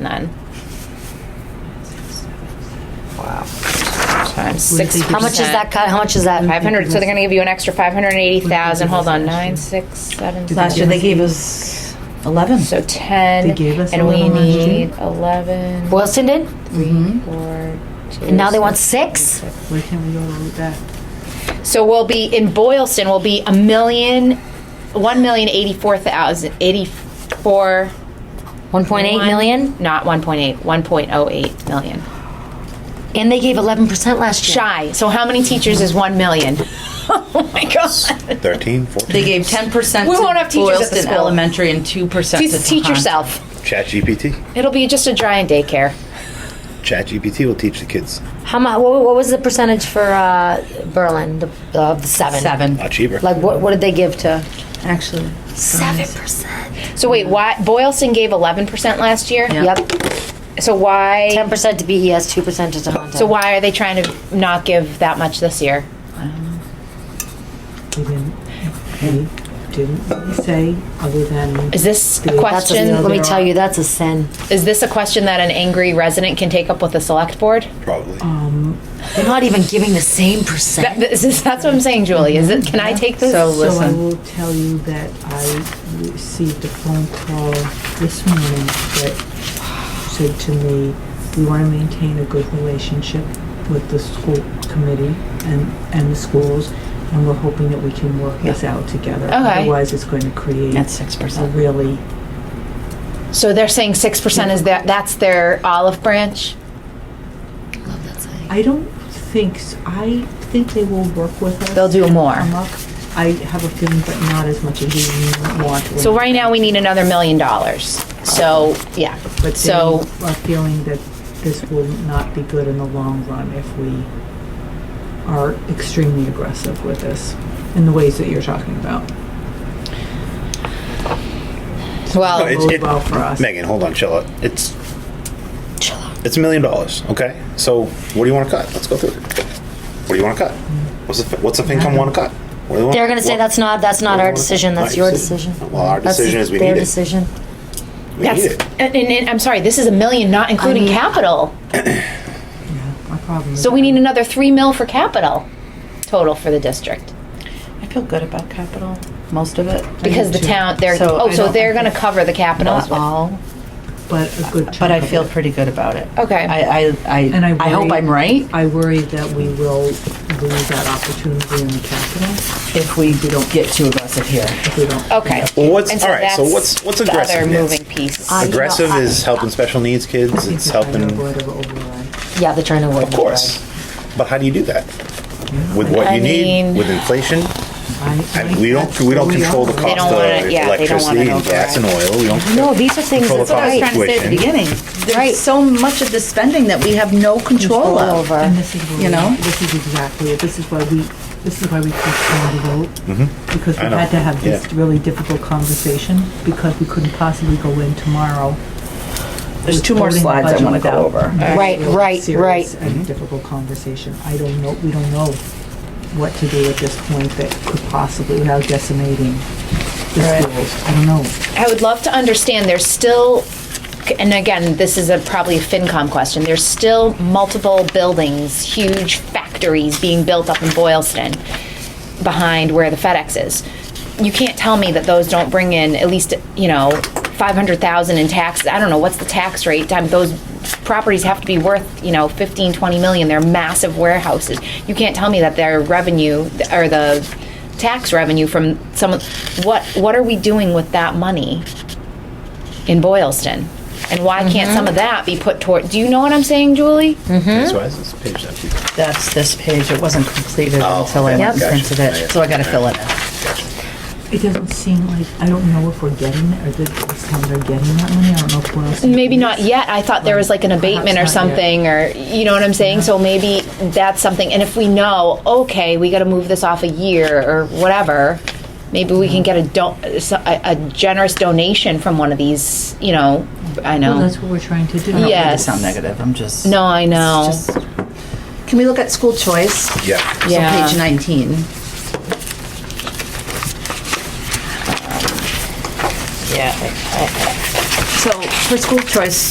ten. Wow. Times six. How much is that cut? How much is that? Five hundred. So they're gonna give you an extra five hundred and eighty thousand. Hold on, nine, six, seven. Last year seven. they gave us 11. So ten, They gave us and we 11 last year. need eleven. Boylston did, Mhm. four, two, and now they want six. six. Where can we go with that? So we'll be in Boylston. We'll be a million, one million eighty-four thousand eighty-four. One point eight million, Not one point eight. One point oh eight million. and they gave eleven percent last year. Shy. So how many teachers is one million? oh my god. 13, 14. They gave 10% We to won't have teachers at the Boylston school. Elementary and 2% Teach, to teach Tohoto. yourself. Chat GPT. It'll be just a dry and daycare. Chat GPT will teach the kids. How much? What, what was the percentage for uh, Berlin? The, uh, the seven. Seven. Not cheaper. Like what? What did they give to? Actually, Seven percent. So wait, why Boylston gave eleven percent last year? Yeah. Yep. So why? Ten percent to BES. Two percent to Tohoto. So why are they trying to not give that much this year? He didn't, he didn't say other than. Is this a That's a- That's a, question? let me tell you, that's a sin. Is this a question that an angry resident can take up with the select board? Probably. oh, They're not even giving the same percent. That, this is, that's what I'm saying, Julie. Is it? Can I take this? So So I listen. um, will tell you that I received a phone call this morning that said to me, we want to maintain a good relationship with the school committee and, and the schools, and we're hoping that we can work this out together. Okay. Otherwise, it's going to create That's a 6%. really So they're saying six percent is their that's their olive branch. I don't think, s- I think they will work with us. They'll do and more. come up. I have a feeling, but not as much as you want. So right now we need another million dollars. So yeah. But they So are feeling that this will not be good in the long run if we are extremely aggressive with this in the ways that you're talking about. No, well, it's- bode it- well for us. Megan, hold on, chill out. It's it's a million dollars, okay? So what do you want to cut? Let's go through it. What do you want to cut? What's the what's the FinCom want to cut? What do they want- They're gonna say what- that's not that's not what do they our wanna cut? decision. That's Right, your so- decision. Well, our That's decision is we their need it. decision. We that's need it. and, and, and I'm sorry. This is a million, not including capital. My problem is. So we need another three mil for capital total for the district I feel good about capital, most of it. because the town they're So oh I so don't they're think going to cover the capital as Not well. all, But a good but I chunk of feel it. pretty good about it. Okay. I, I, And I, I hope worry- I'm right. I worry that we will lose that opportunity in the capital If we don't get too aggressive here. if we don't. Okay. Well, what's- all right, so that's what's- what's The other aggressiveness? moving piece. I- you know, Aggressive I- is helping special needs kids. It's helping, of Avoid of override. Yeah, they're trying to work. course. But how do you do that? With what I you mean- need, with inflation, I- and we don't we don't control the cost don't wanna- of yeah, they don't wanna electricity and gas and oil. We don't. No, these are things Control that's That's the what I was right. trying to say at the beginning. Right. There's so much of the spending that we have no control over. of. And this is where You we- know? This is exactly it. This is why we, this is why we postponed the vote. Because we Mm-hmm. I know. had to have this Yeah. really difficult conversation, because we couldn't possibly go in tomorrow. There's with two more voting the slides I budget want to go without over. a Right, real right, serious right. Mm-hmm. And difficult conversation. I don't know, we don't know what to do at this point that could possibly, without decimating the schools. I don't know. I would love to understand, there's still, and again, this is a probably a FinCom question, there's still multiple buildings, huge factories being built up in Boylston behind where the FedEx is. You can't tell me that those don't bring in at least, you know, five hundred thousand in taxes. I don't know, what's the tax rate? Time, those properties have to be worth, you know, fifteen, twenty million. They're massive warehouses. You can't tell me that their revenue, or the tax revenue from some of, what, what are we doing with that money in Boylston? And why can't Mm-hmm. some of that be put toward, do you know what I'm saying, Julie? That's why this page empty. That's this page. It wasn't completed Oh, until I okay. went and Yep. printed it, so I gotta fill it in. It doesn't seem like, I don't know if we're getting, it, or that this time they're getting that money. I don't know if we're. else- Maybe not yet, I thought there was like an Perhaps abatement or not yet. something, or, you know what I'm saying? So maybe that's something, and if we know, okay, we gotta move this off a year or whatever, maybe we Mm-hmm. can get a don, a a generous donation from one of these, you know, I Well, know. that's what we're trying to I do. don't mean to Yes. sound negative. I'm just. No, I it's know. just- Can we look at school choice? Yeah. So Yeah. page 19. Yeah. So for school choice,